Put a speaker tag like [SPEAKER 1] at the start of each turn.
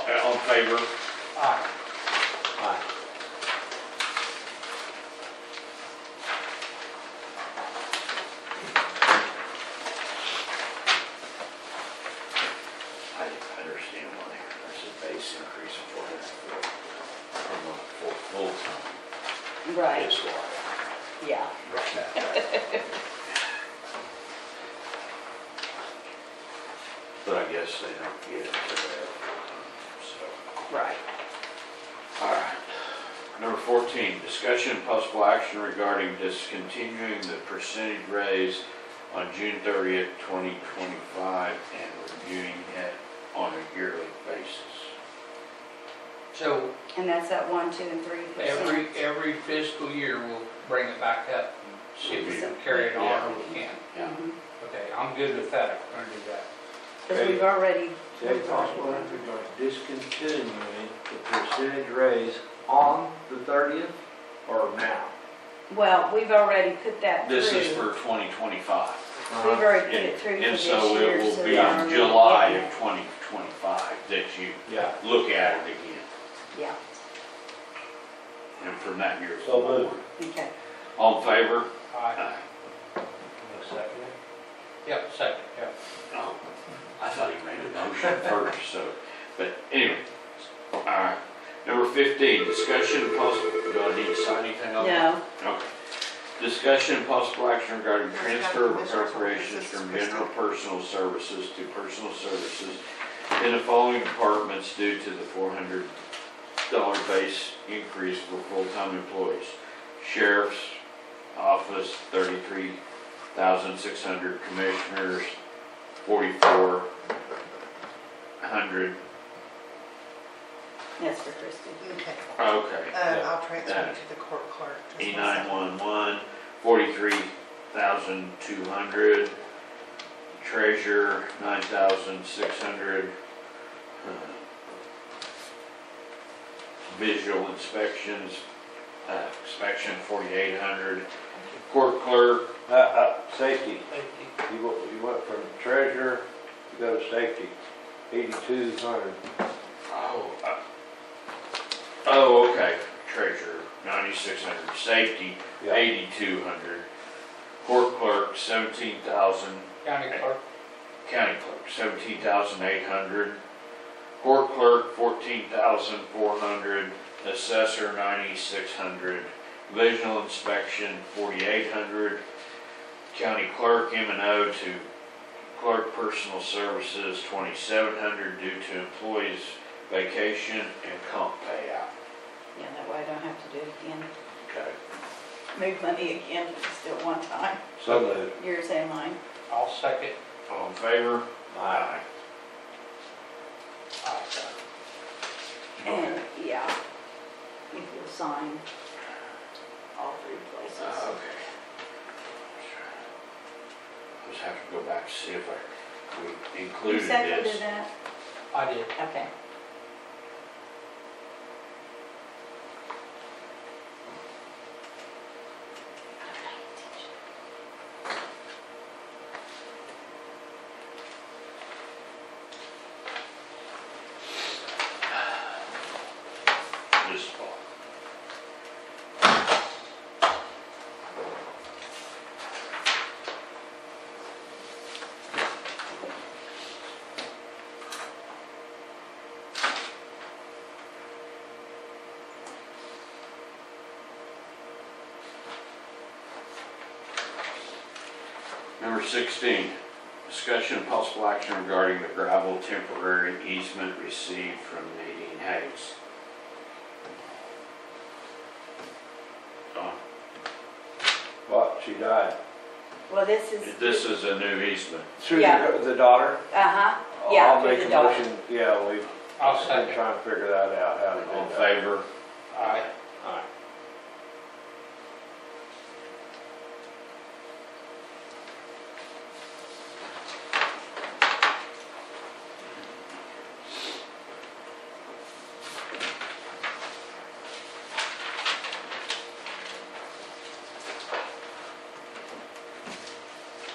[SPEAKER 1] favor?
[SPEAKER 2] Aye.
[SPEAKER 1] Aye.
[SPEAKER 3] I understand why there's a base increase of four hundred from a full, full time.
[SPEAKER 4] Right,
[SPEAKER 3] That's why.
[SPEAKER 4] yeah.
[SPEAKER 3] Right. But I guess they don't get it to their full time, so.
[SPEAKER 4] Right.
[SPEAKER 3] All right. Number fourteen, discussion and possible action regarding discontinuing the percentage raise on June thirtieth, twenty twenty-five and reviewing it on a yearly basis.
[SPEAKER 2] So
[SPEAKER 4] And that's that one, two, and three
[SPEAKER 2] every,
[SPEAKER 4] percent.
[SPEAKER 2] every fiscal year, we'll bring it back up and see if we can carry it on or we can't.
[SPEAKER 3] Yeah.
[SPEAKER 2] Okay, I'm good with that, I'm gonna do that.
[SPEAKER 4] Mm-hmm. Because we've already.
[SPEAKER 5] Is it possible if we're going to discontinue the percentage raise on the thirtieth or now?
[SPEAKER 4] Well, we've already put that through.
[SPEAKER 3] This is for 2025.
[SPEAKER 4] We've
[SPEAKER 5] Uh,
[SPEAKER 4] already put it through for
[SPEAKER 3] And
[SPEAKER 4] this
[SPEAKER 3] so it
[SPEAKER 4] year.
[SPEAKER 3] will
[SPEAKER 4] we
[SPEAKER 3] be
[SPEAKER 4] are
[SPEAKER 3] in July
[SPEAKER 4] already-
[SPEAKER 3] of 2025 that you
[SPEAKER 5] Yeah.
[SPEAKER 3] look at it again,
[SPEAKER 4] Yeah,
[SPEAKER 3] and from that year
[SPEAKER 5] So
[SPEAKER 3] forward.
[SPEAKER 5] moved.
[SPEAKER 4] okay.
[SPEAKER 3] All in favor?
[SPEAKER 2] Aye.
[SPEAKER 5] Second.
[SPEAKER 2] Yep, second, yep.
[SPEAKER 3] Oh, I thought he made a motion first, so, but anyway. All right. Number 15, discussion and possible, do I need to sign anything on that?
[SPEAKER 4] No,
[SPEAKER 3] Okay. Discussion and possible action regarding
[SPEAKER 6] There's gotta
[SPEAKER 3] transfer
[SPEAKER 6] be
[SPEAKER 3] of
[SPEAKER 6] this one.
[SPEAKER 3] appropriations
[SPEAKER 6] This is
[SPEAKER 3] from
[SPEAKER 6] Kristen.
[SPEAKER 3] general personal services to personal services in the following departments due to the four hundred dollar base increase for full-time employees. Sheriff's office, thirty-three thousand six hundred, commissioners, forty-four hundred.
[SPEAKER 4] that's for Christie.
[SPEAKER 6] Okay,
[SPEAKER 3] Okay.
[SPEAKER 6] um, I'll transfer
[SPEAKER 3] Yeah.
[SPEAKER 6] it to the court clerk. That's
[SPEAKER 3] E
[SPEAKER 6] my
[SPEAKER 3] nine
[SPEAKER 6] second.
[SPEAKER 3] one one, forty-three thousand two hundred. Treasure, nine thousand six hundred. Uh, Visual inspections, uh, inspection forty-eight hundred. Court clerk,
[SPEAKER 5] Uh, uh, safety, you went, you went from treasurer to go to safety, eighty-two hundred.
[SPEAKER 3] oh, uh, oh, okay, treasurer, ninety-six hundred, safety,
[SPEAKER 5] Yeah.
[SPEAKER 3] eighty-two hundred. Court clerk, seventeen thousand,
[SPEAKER 2] County clerk,
[SPEAKER 3] County clerk, seventeen thousand eight hundred. Court clerk, fourteen thousand four hundred. Assessor, ninety-six hundred. Visual inspection, forty-eight hundred. County clerk, M and O to clerk personal services, twenty-seven hundred due to employees vacation and comp payout.
[SPEAKER 4] Yeah, that way I don't have to do it again.
[SPEAKER 3] Okay.
[SPEAKER 4] Move money again, just at one time.
[SPEAKER 5] So moved.
[SPEAKER 4] Yours and mine.
[SPEAKER 2] I'll second.
[SPEAKER 3] All in favor? Aye.
[SPEAKER 2] Aye.
[SPEAKER 4] And, yeah, if you'll sign all three places.
[SPEAKER 3] Uh, Okay. Just have to go back to see if I, we
[SPEAKER 4] You
[SPEAKER 3] included
[SPEAKER 4] seconded
[SPEAKER 3] this.
[SPEAKER 4] that?
[SPEAKER 2] I did.
[SPEAKER 4] Okay.
[SPEAKER 3] This spot. Number 16, discussion and possible action regarding the gravel temporary easement received from Nadine Hayes. Don,
[SPEAKER 5] What, she died?
[SPEAKER 4] Well, this is,
[SPEAKER 3] This is a new easement.
[SPEAKER 5] Through
[SPEAKER 4] Yeah.
[SPEAKER 5] the the daughter?
[SPEAKER 4] uh-huh, yeah,
[SPEAKER 5] I'll
[SPEAKER 4] through
[SPEAKER 5] make
[SPEAKER 4] the
[SPEAKER 5] a
[SPEAKER 4] dog.
[SPEAKER 5] motion, yeah, we've
[SPEAKER 2] I'll
[SPEAKER 5] been
[SPEAKER 2] second.
[SPEAKER 5] trying to figure that out, how to
[SPEAKER 3] All in
[SPEAKER 5] do that.
[SPEAKER 3] favor?
[SPEAKER 2] Aye.